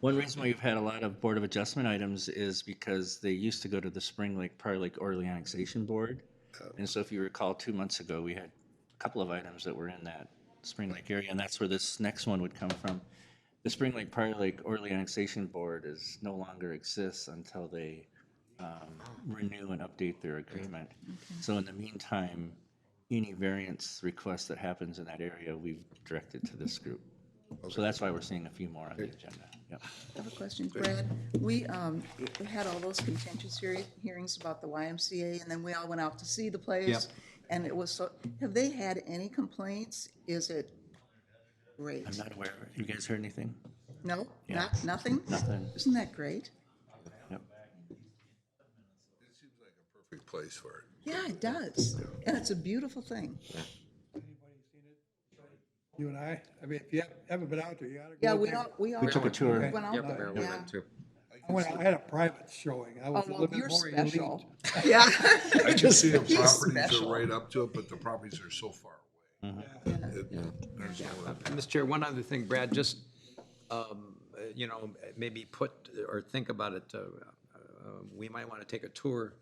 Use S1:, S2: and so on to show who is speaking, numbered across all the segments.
S1: One reason why you've had a lot of Board of Adjustment items is because they used to go to the Spring Lake, Prior Lake Orderly Annexation Board. And so if you recall, two months ago, we had a couple of items that were in that Spring Lake area, and that's where this next one would come from. The Spring Lake, Prior Lake Orderly Annexation Board is, no longer exists until they um, renew and update their agreement. So in the meantime, any variance request that happens in that area, we've directed to this group. So that's why we're seeing a few more on the agenda. Yep.
S2: I have a question, Brad. We, um, we had all those contentious hear- hearings about the YMCA, and then we all went out to see the place. And it was so, have they had any complaints? Is it great?
S1: I'm not aware. You guys heard anything?
S2: No, not, nothing?
S1: Nothing.
S2: Isn't that great?
S1: Yep.
S3: Perfect place for it.
S2: Yeah, it does. And it's a beautiful thing.
S4: You and I, I mean, if you haven't been out there, you ought to go.
S2: Yeah, we
S4: there.
S2: don't, we all.
S1: We took a tour.
S2: Went out
S5: Yep,
S2: there,
S5: Marilyn
S2: yeah.
S5: went too.
S4: I went, I had a private showing. I
S2: Oh,
S4: was a little
S2: well,
S4: bit
S2: you're
S4: more elite.
S2: special. Yeah.
S3: I can see the
S2: He's
S3: properties
S2: special.
S3: are right up to it, but the properties are so far away. It- There's no way.
S5: Mr. Chair, one other thing, Brad, just, um, uh, you know, maybe put or think about it. uh, uh, We might want to take a tour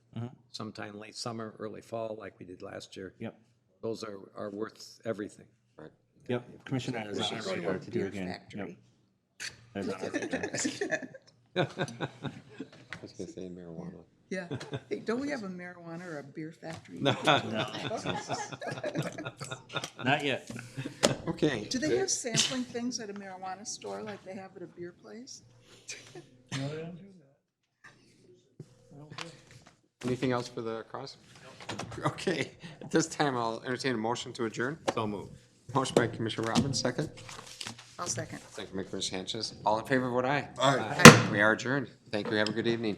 S5: sometime late summer, early fall, like we did last year.
S1: Yep.
S5: Those are, are worth everything.
S1: Yep. Commissioner is on our
S2: Go to
S1: radar
S2: a
S1: to do
S2: beer
S1: again. Yep.
S2: factory.
S1: That's on our radar.
S6: I was gonna say marijuana.
S2: Yeah. Hey, don't we have a marijuana or a beer factory?
S1: Not yet.
S6: Okay.
S2: Do they have sampling things at a marijuana store like they have at a beer place?
S6: Anything else for the cross? Okay, at this time, I'll entertain a motion to adjourn. So moved. Motion by Commissioner Robbins, second.
S2: I'll second.
S6: Second by Commissioner Sanchez. All in favor, vote aye.
S3: All right.
S6: We are adjourned. Thank you. Have a good evening.